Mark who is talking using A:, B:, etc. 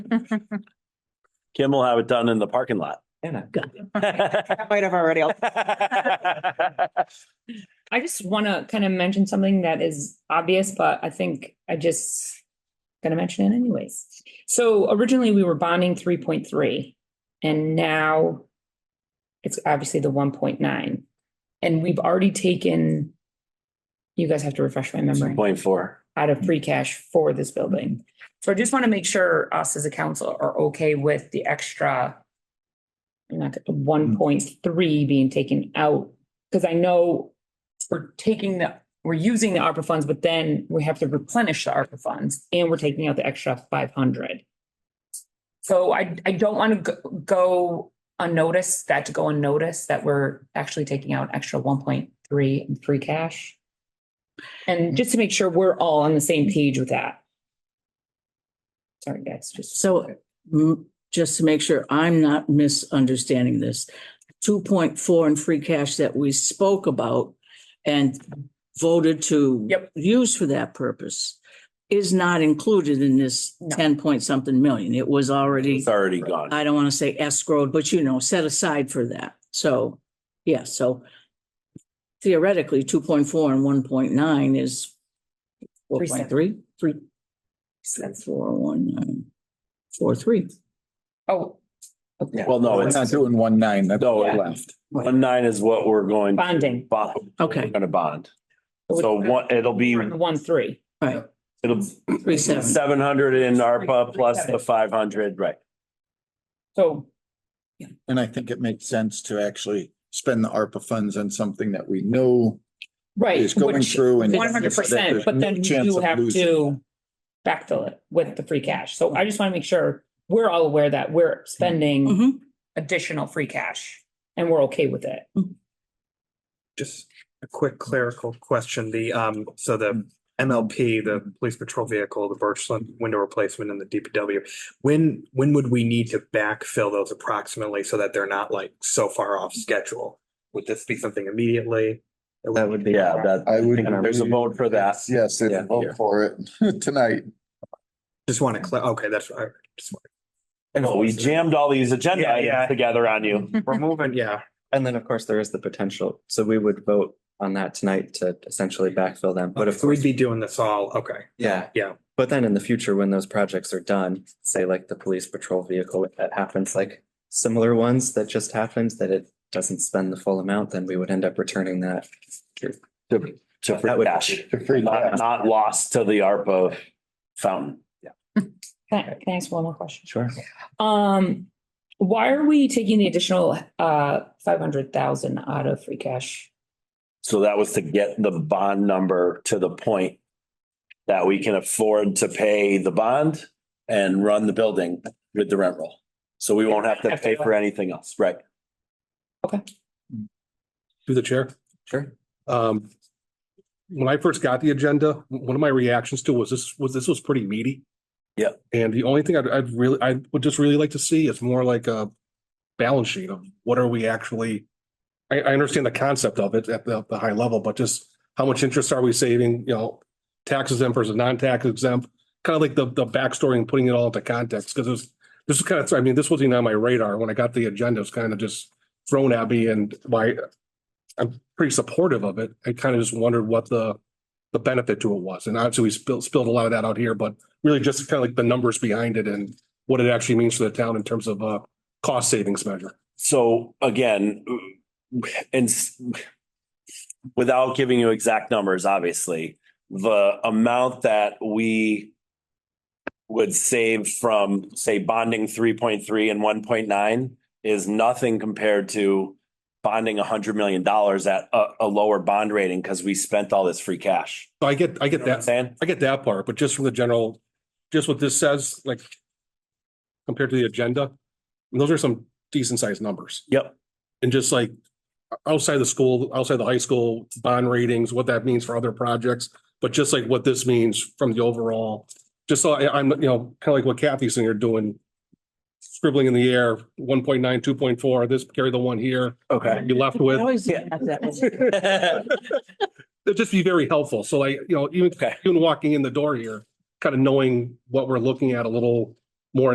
A: Kim will have it done in the parking lot.
B: I might have already.
C: I just want to kind of mention something that is obvious, but I think I just gonna mention it anyways. So originally we were bonding three point three and now it's obviously the one point nine. And we've already taken, you guys have to refresh my memory,
A: Point four.
C: out of free cash for this building. So I just want to make sure us as a council are okay with the extra like one point three being taken out, because I know we're taking the, we're using the ARPA funds, but then we have to replenish the ARPA funds and we're taking out the extra five hundred. So I, I don't want to go unnoticed, that to go unnoticed, that we're actually taking out extra one point three in free cash. And just to make sure we're all on the same page with that. Sorry, guys, just.
D: So mm, just to make sure I'm not misunderstanding this, two point four in free cash that we spoke about and voted to
C: Yep.
D: use for that purpose is not included in this
C: No.
D: ten point something million. It was already,
A: It's already gone.
D: I don't want to say escrowed, but you know, set aside for that. So, yeah, so theoretically, two point four and one point nine is four
C: Three seven.
D: point three, three, four, one, nine, four, three.
C: Oh.
A: Well, no,
E: We're
A: it's,
E: not doing one nine, that's
A: No,
E: all
A: Oh, yeah.
E: left.
A: one nine is what we're going. to
C: Bonding.
A: Bond.
D: Okay.
A: We're Gonna bond. So one, it'll be,
C: The One, three.
D: Right,
A: it'll
D: three, seven.
A: seven hundred in ARPA plus the five hundred, right?
C: So
E: And I think it makes sense to actually spend the ARPA funds on something that we know
C: Right.
E: is going through and.
C: One hundred percent, but then you do have to backfill it with the free cash. So I just want to make sure we're all aware that we're spending
D: Mhm.
C: additional free cash and we're okay with it.
F: Just a quick clerical question, the, um, so the MLP, the police patrol vehicle, the Birchland window replacement and the DPW. When, when would we need to backfill those approximately so that they're not like so far off schedule? Would this be something immediately?
E: That would be-
A: Yeah, that,
E: I would.
A: there's a vote for that.
E: Yes, there's
A: Yeah.
E: a vote for it tonight.
F: Just want to, clar- okay, that's, I just, wanna-
A: No, we jammed all these agenda
F: Yeah, yeah.
A: items together on you.
F: we're moving, yeah.
G: And then, of course, there is the potential. So we would vote on that tonight to essentially backfill them. But
F: But
G: if
F: if we'd be doing this all, okay,
G: yeah.
F: Yeah.
G: But then in the future, when those projects are done, say like the police patrol vehicle, if that happens, like similar ones that just happens, that it doesn't spend the full amount, then we would end up returning that.
A: To, to
G: That
A: free
G: would-
A: cash,
E: To free
A: not,
E: cash.
A: not lost to the ARPA fountain.
C: Can I, can I ask one more question?
G: Sure.
C: Um, why are we taking the additional uh five hundred thousand out of free cash?
A: So that was to get the bond number to the point that we can afford to pay the bond and run the building with the rent roll. So we won't have to pay for anything else, right?
H: Through the chair.
G: Sure.
H: Um, when I first got the agenda, one of my reactions to was this, was this was pretty meaty.
A: Yeah.
H: And the only thing I'd, I'd really, I would just really like to see is more like a balance sheet of what are we actually? I, I understand the concept of it at the, the high level, but just how much interest are we saving, you know? Tax exempt versus non-tax exempt, kind of like the, the backstory and putting it all into context, because it was, this is kind of, I mean, this wasn't even on my radar. When I got the agenda, it was kind of just thrown at me and my, I'm pretty supportive of it. I kind of just wondered what the, the benefit to it was. And obviously we spilled, spilled a lot of that out here, but really just kind of like the numbers behind it and what it actually means for the town in terms of, uh, cost savings measure.
A: So again, and s- without giving you exact numbers, obviously, the amount that we would save from, say, bonding three point three and one point nine is nothing compared to bonding hundred million dollars at a, a lower bond rating because we spent all this free cash.
H: So I get, I
A: You
H: get
A: know what I'm
H: that.
A: saying?
H: I get that part, but just from the general, just what this says, like compared to the agenda, those are some decent sized numbers.
A: Yep.
H: And just like outside the school, outside the high school bond ratings, what that means for other projects, but just like what this means from the overall, just so I, I'm, you know, kind of like what Kathy's saying, you're doing scribbling in the air, 1.9, 2.4. this carry the one here,
A: Okay.
H: you left with.
D: Always
A: Yeah.
D: have that one.
H: It'd just be very helpful. So like, you know, even,
A: Okay.
H: even walking in the door here, kind of knowing what we're looking at a little